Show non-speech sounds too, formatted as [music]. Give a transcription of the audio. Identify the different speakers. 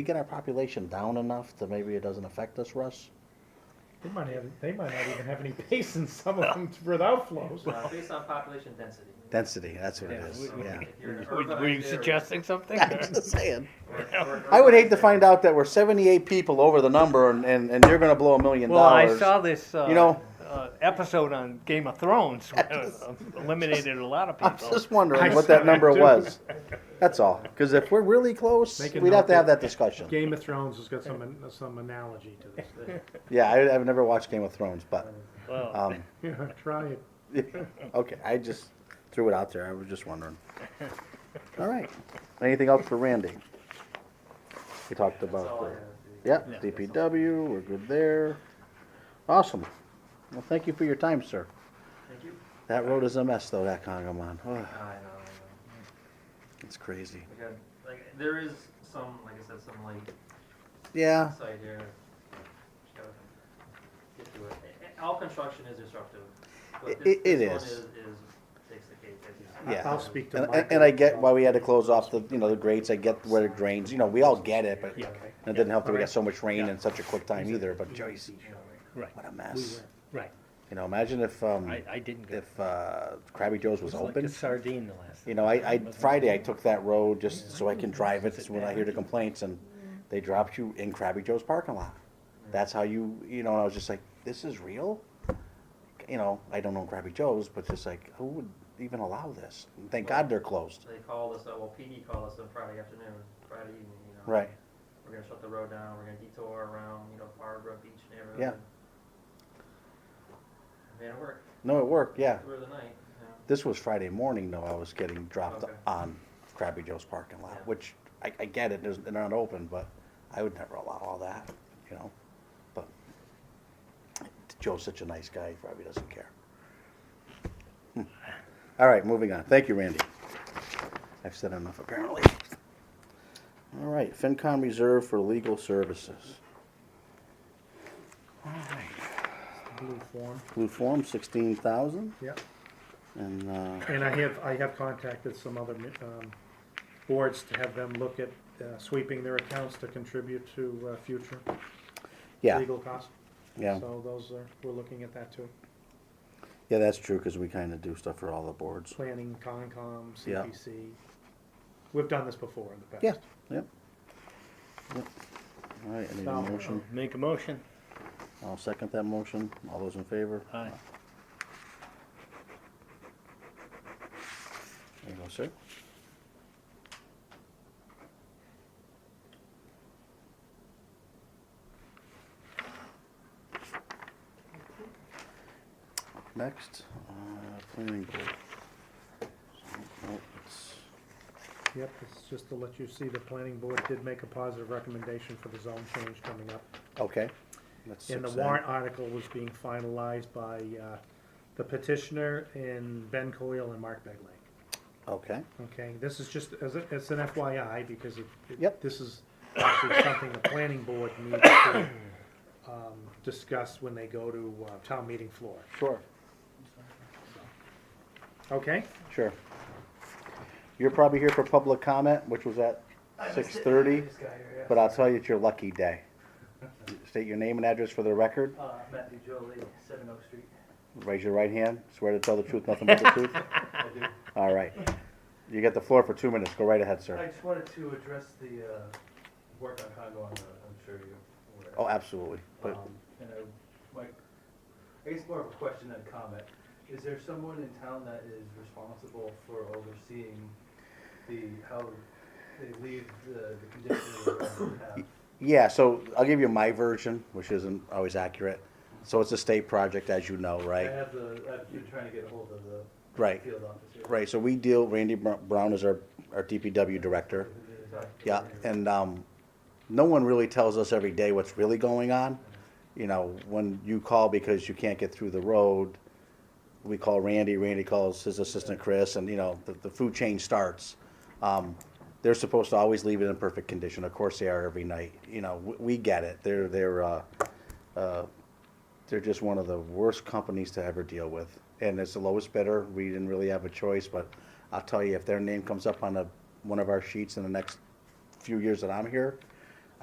Speaker 1: we get our population down enough that maybe it doesn't affect us, Russ?
Speaker 2: They might have, they might not even have any basins, some of them, for the outflows.
Speaker 3: Well, Based on population density.
Speaker 1: Density, that's what it
Speaker 4: Yeah,
Speaker 1: is,
Speaker 4: we-
Speaker 3: [laughs]
Speaker 4: we-
Speaker 1: yeah.
Speaker 3: If you're in an
Speaker 4: Were
Speaker 3: urbanized
Speaker 4: were you
Speaker 3: area-
Speaker 1: [laughs]
Speaker 4: suggesting something?
Speaker 1: Yeah, I'm just saying.
Speaker 3: or an urbanized
Speaker 1: I would hate to find
Speaker 3: area.
Speaker 1: out that we're seventy-eight people over the number and, and, and you're gonna blow a million
Speaker 4: Well, I
Speaker 1: dollars.
Speaker 4: saw this,
Speaker 1: You know-
Speaker 4: uh, uh, episode on Game of Thrones, where it eliminated a lot of
Speaker 1: I'm
Speaker 4: people.
Speaker 1: just wondering
Speaker 2: I
Speaker 1: what
Speaker 2: saw
Speaker 1: that number
Speaker 2: that too.
Speaker 1: was. That's all, cause if we're really close,
Speaker 2: Make a
Speaker 1: we'd have
Speaker 2: note
Speaker 1: to have that
Speaker 2: that-
Speaker 1: discussion.
Speaker 2: Game of Thrones has got some, some analogy to this [laughs] thing.
Speaker 1: Yeah, I, I've never watched Game of Thrones, but,
Speaker 4: Well,
Speaker 1: um, [laughs]
Speaker 2: Yeah, try it.
Speaker 1: okay, I just threw it out there, I was just
Speaker 4: [laughs]
Speaker 1: wondering. All right, anything else for Randy? We talked
Speaker 3: That's
Speaker 1: about
Speaker 3: all I
Speaker 1: the.
Speaker 3: have.
Speaker 4: Yeah.
Speaker 1: Yep, DPW, we're good there. Awesome. Well, thank you for your time, sir.
Speaker 3: Thank you.
Speaker 1: That road is a mess though, that Congamon. Ugh,
Speaker 3: I know, I know.
Speaker 1: It's crazy.
Speaker 3: We got, like, there is some, like I said, some like
Speaker 1: Yeah,
Speaker 3: side here. Just gotta Get to it. A- a- All construction is disruptive. but
Speaker 1: It-
Speaker 3: this-
Speaker 1: it- it
Speaker 3: this one
Speaker 1: is.
Speaker 3: Is, is, takes the cake. as you said.
Speaker 1: Yeah.
Speaker 2: I'll speak to
Speaker 1: and,
Speaker 2: Michael.
Speaker 1: and and I get why we had to close off the, you know, the grates, I get where it drains, you know, we all get it, but
Speaker 4: Yeah.
Speaker 2: Okay.
Speaker 1: it didn't help that we got so much rain in such a quick time either, but geez,
Speaker 4: right,
Speaker 1: what a
Speaker 2: We
Speaker 1: mess.
Speaker 2: were-
Speaker 4: right.
Speaker 1: You know, imagine if, um,
Speaker 4: I, I didn't go.
Speaker 1: if, uh, Krabby Joe's was
Speaker 4: It's like a
Speaker 1: open.
Speaker 4: sardine the last.
Speaker 1: You know, I, I, Friday, I took that road just so I can drive it, so when I hear the complaints, and they dropped you in Krabby Joe's parking lot. That's how you, you know, and I was just like, this is real? You know, I don't know Krabby Joe's, but just like, who would even allow this? And Thank God they're closed.
Speaker 3: They called us, uh, well, PD called us on Friday afternoon, Friday evening, you know.
Speaker 1: Right,
Speaker 3: We're gonna shut the road down, we're gonna detour around, you know, Farborough Beach neighborhood.
Speaker 1: Yeah.
Speaker 3: I made it work
Speaker 1: no, it worked, yeah.
Speaker 3: through the night, you know.
Speaker 1: This was Friday morning, though, I was getting dropped
Speaker 3: Okay.
Speaker 1: on Krabby Joe's parking
Speaker 3: Yeah.
Speaker 1: lot, which I, I get it, there's, they're not open, but I would never allow all that, you know? But Joe's such a nice guy, he probably doesn't care. Hmm. All right, moving on. Thank you, Randy. I've said enough, apparently. All right, FinCom Reserve for Legal Services. All right,
Speaker 2: Blue form,
Speaker 1: blue form, sixteen thousand,
Speaker 2: yeah.
Speaker 1: and, uh,
Speaker 2: And I have, I have contacted some other, um, boards to have them look at uh, sweeping their accounts to contribute to, uh, future
Speaker 1: yeah,
Speaker 2: legal costs.
Speaker 1: yeah.
Speaker 2: So those are, we're looking at that too.
Speaker 1: Yeah, that's true, because we kind of do stuff for all the boards.
Speaker 2: Planning, Concom,
Speaker 1: Yeah.
Speaker 2: CPC. We've done this before in the past.
Speaker 1: Yeah, yep. Yep. All right, I need a
Speaker 2: So-
Speaker 1: motion.
Speaker 4: Make a motion.
Speaker 1: I'll second that motion. All those in favor?
Speaker 4: Aye.
Speaker 1: There you go, sir. Next, uh, planning board. Nope, it's-
Speaker 2: Yep, it's just to let you see, the planning board did make a positive recommendation for the zone change coming up.
Speaker 1: Okay. that's
Speaker 2: And the
Speaker 1: six then.
Speaker 2: warrant article was being finalized by uh, the petitioner and Ben Coyle and Mark Begley.
Speaker 1: Okay.
Speaker 2: Okay, this is just, as a- it's an FYI, because it- it-
Speaker 1: Yep.
Speaker 2: this is actually something the planning board needs to um, discuss when they go to uh, town meeting floor.
Speaker 1: Sure.
Speaker 2: Okay?
Speaker 1: Sure. You're probably here for public comment, which was at six thirty, but I'll tell you, it's your lucky day. State your name and address for the record,
Speaker 3: Uh, Matthew Jolie, Seven Oak Street.
Speaker 1: raise your right hand, swear to tell the truth, nothing but the truth.
Speaker 3: [laughs] I do.
Speaker 1: All right. You get the floor for two minutes, go right ahead,
Speaker 3: I
Speaker 1: sir.
Speaker 3: just wanted to address the uh, work on Congo on the, I'm sure you're aware.
Speaker 1: Oh, absolutely, but,
Speaker 3: Um, And I, my, I guess more of a question than a comment. Is there someone in town that is responsible for overseeing the, how they leave the, the condition of the ground they have?
Speaker 1: yeah, so I'll give you my version, which isn't always accurate. So it's a state project, as you know,
Speaker 3: I
Speaker 1: right?
Speaker 3: have the, I've been trying to get ahold of the
Speaker 1: Right,
Speaker 3: field officer.
Speaker 1: right, so we deal, Randy Br- Brown is our, our DPW director. Yeah, and um, no one really tells us every day what's really going on. You know, when you call because you can't get through the road, we call Randy, Randy calls his assistant Chris, and you know, the, the food chain starts. Um, they're supposed to always leave it in perfect condition. Of course they are every night. You know, we, we get it. They're, they're, uh, uh, they're just one of the worst companies to ever deal with. And it's the lowest bidder. We didn't really have a choice, but I'll tell you, if their name comes up on a, one of our sheets in the next few years that I'm here,